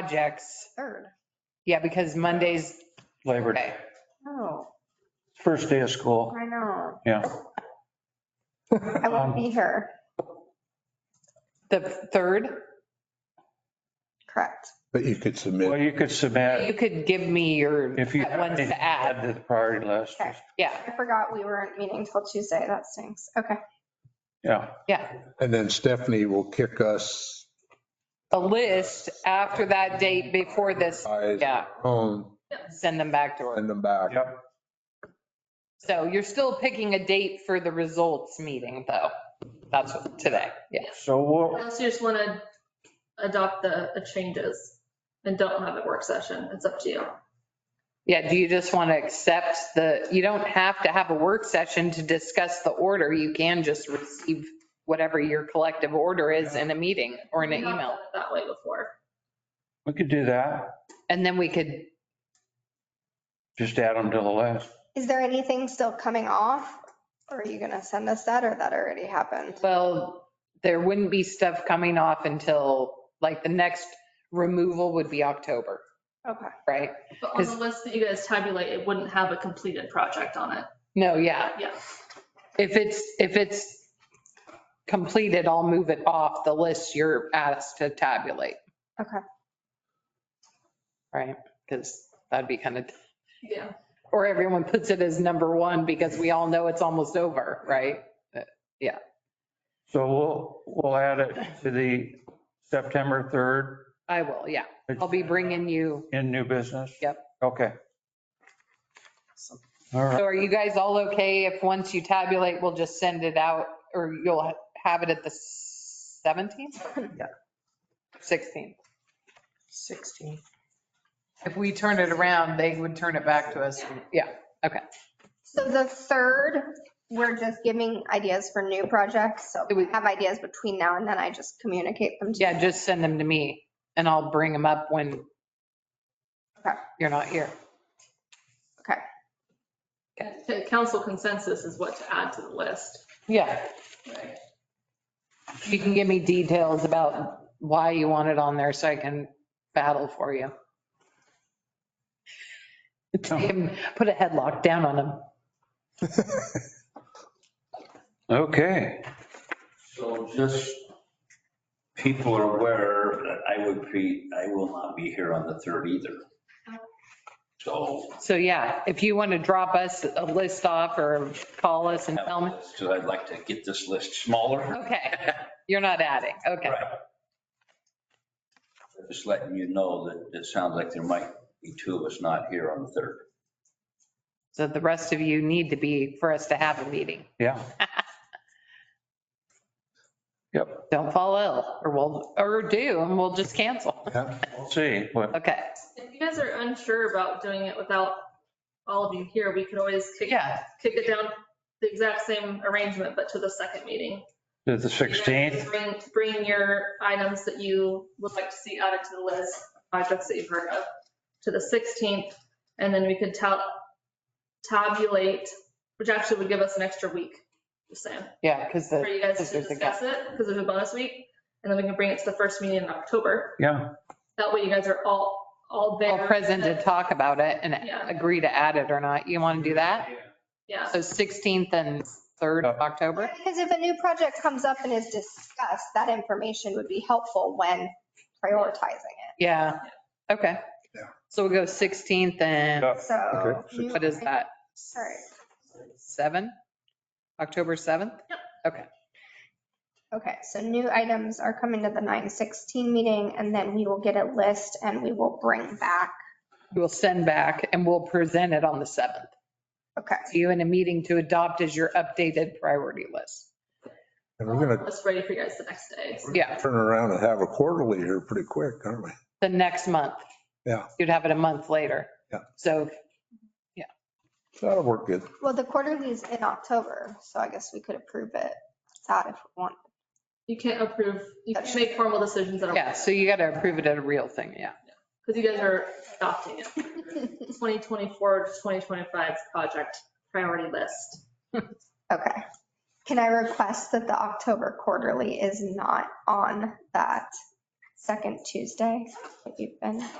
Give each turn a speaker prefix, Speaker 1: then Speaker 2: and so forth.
Speaker 1: projects.
Speaker 2: Third.
Speaker 1: Yeah, because Monday's,
Speaker 3: Labor Day,
Speaker 1: okay,
Speaker 2: Oh,
Speaker 3: first day of school.
Speaker 2: I know.
Speaker 3: Yeah.
Speaker 2: I won't be here.
Speaker 1: the third,
Speaker 2: Correct.
Speaker 4: But you
Speaker 3: Well,
Speaker 4: could submit,
Speaker 3: you could
Speaker 1: you
Speaker 3: submit
Speaker 1: could give me your
Speaker 3: if you
Speaker 1: ones to add.
Speaker 3: add to the priority list.
Speaker 2: Okay.
Speaker 1: Yeah,
Speaker 2: I forgot we weren't meeting till Tuesday. That stinks. Okay.
Speaker 3: Yeah,
Speaker 4: and then Stephanie will kick us
Speaker 1: a list after that date before this,
Speaker 4: eyes
Speaker 1: yeah,
Speaker 4: home,
Speaker 1: send them back to her.
Speaker 4: send them back.
Speaker 3: yep.
Speaker 1: So you're still picking a date for the results meeting though. That's today, yeah.
Speaker 3: So we'll,
Speaker 5: Unless you just want to adopt the the changes and don't have a work session, it's up to you.
Speaker 1: Yeah, do you just want to accept the, you don't have to have a work session to discuss the order. You can just receive whatever your collective order is in a meeting or in an
Speaker 5: We've not
Speaker 1: email.
Speaker 5: done it That way before.
Speaker 3: we could do that.
Speaker 1: And then we could,
Speaker 3: Just add them to the list.
Speaker 2: Is there anything still coming off? Or are you going to send us that or that already happened?
Speaker 1: well, there wouldn't be stuff coming off until, like, the next removal would be October,
Speaker 2: Okay.
Speaker 1: right?
Speaker 5: But on the
Speaker 1: 'Cause-
Speaker 5: list that you guys tabulate, it wouldn't have a completed project on it.
Speaker 1: No, yeah.
Speaker 5: Yeah.
Speaker 1: If it's, if it's completed, I'll move it off the list you're asked to tabulate,
Speaker 2: Okay.
Speaker 1: right? Because that'd be kind of
Speaker 5: Yeah.
Speaker 1: or everyone puts it as number one because we all know it's almost over, right?
Speaker 3: So we'll, we'll add it to the September
Speaker 1: I will, yeah.
Speaker 3: 3rd.
Speaker 1: I'll be bringing you,
Speaker 3: In new business?
Speaker 1: Yep.
Speaker 3: Okay. All right.
Speaker 1: so are you guys all okay if once you tabulate, we'll just send it out or you'll have it at the 17th? Yeah. 16th.
Speaker 6: Sixteen.
Speaker 1: If we turn it around, they would turn it back to us. Yeah,
Speaker 2: So the third, we're just giving ideas for new projects. So
Speaker 1: It
Speaker 2: we
Speaker 1: would-
Speaker 2: have ideas between now and then. I just communicate them to you.
Speaker 1: yeah, just send them to me and I'll bring them up when
Speaker 2: Okay.
Speaker 1: you're not here.
Speaker 5: The Council consensus is what to add to the list.
Speaker 1: Yeah,
Speaker 5: Right.
Speaker 1: you can give me details about why you want it on there so I can battle for you. Take him, put a headlock down on him.
Speaker 3: Okay.
Speaker 7: So just, people are aware that I would be, I will not be here on the third either. So.
Speaker 1: So yeah, if you want to drop us a list off or call us and tell me,
Speaker 7: Because I'd like to get this list smaller.
Speaker 1: okay, you're not adding, okay.
Speaker 7: Right. Just letting you know that it sounds like there might be two of us not here on the third.
Speaker 1: So the rest of you need to be for us to have a meeting.
Speaker 3: Yeah. Yep,
Speaker 1: Don't fall ill or we'll, or do, and we'll just cancel.
Speaker 3: we'll see. What,
Speaker 1: Okay,
Speaker 5: If you guys are unsure about doing it without all of you here, we could always kick,
Speaker 1: yeah,
Speaker 5: kick it down the exact same arrangement, but to the second meeting.
Speaker 3: the 16th?
Speaker 5: Bring, bring your items that you would like to see added to the list, projects that you've heard of, to the 16th. And then we could tab, tabulate, which actually would give us an extra week, just saying,
Speaker 1: yeah, because
Speaker 5: for
Speaker 1: the,
Speaker 5: you guys
Speaker 1: Because
Speaker 5: to
Speaker 1: there's a gap.
Speaker 5: discuss it, because there's a bonus week. And then we can bring it to the first meeting in October.
Speaker 3: Yeah,
Speaker 5: That way you guys are all, all there.
Speaker 1: all present to talk about it and
Speaker 5: Yeah.
Speaker 1: agree to add it or not. You want to do that?
Speaker 5: Yeah.
Speaker 1: So 16th and 3rd
Speaker 4: Oh.
Speaker 1: of October?
Speaker 2: Because if a new project comes up and is discussed, that information would be helpful when prioritizing it.
Speaker 1: Yeah, okay.
Speaker 4: Yeah.
Speaker 1: So we'll go 16th and,
Speaker 3: Yeah.
Speaker 2: So.
Speaker 4: Okay.
Speaker 2: new-
Speaker 1: what is that?
Speaker 2: Sorry.
Speaker 1: 7? October 7th?
Speaker 2: Okay, so new items are coming to the 916 meeting and then we will get a list and we will bring back.
Speaker 1: We'll send back and we'll present it on the 7th
Speaker 2: Okay,
Speaker 1: to you in a meeting to adopt as your updated priority list.
Speaker 4: And we're going
Speaker 5: That's ready for you guys the next day. so.
Speaker 1: Yeah,
Speaker 4: to turn around and have a quarterly here pretty quick, aren't we?
Speaker 1: the next month.
Speaker 4: Yeah.
Speaker 1: You'd have it a month later.
Speaker 4: Yeah.
Speaker 1: So
Speaker 4: That'll work good.
Speaker 2: well, the quarterly is in October, so I guess we could approve it. That if we want.
Speaker 5: You can't approve, you can't make formal decisions at all.
Speaker 1: Yeah, so you got to approve it at a real thing, yeah.
Speaker 5: Because you guys are adopting it. 2024 to 2025 project priority list.
Speaker 2: Okay. Can I request that the October quarterly is not on that second Tuesday that you've been.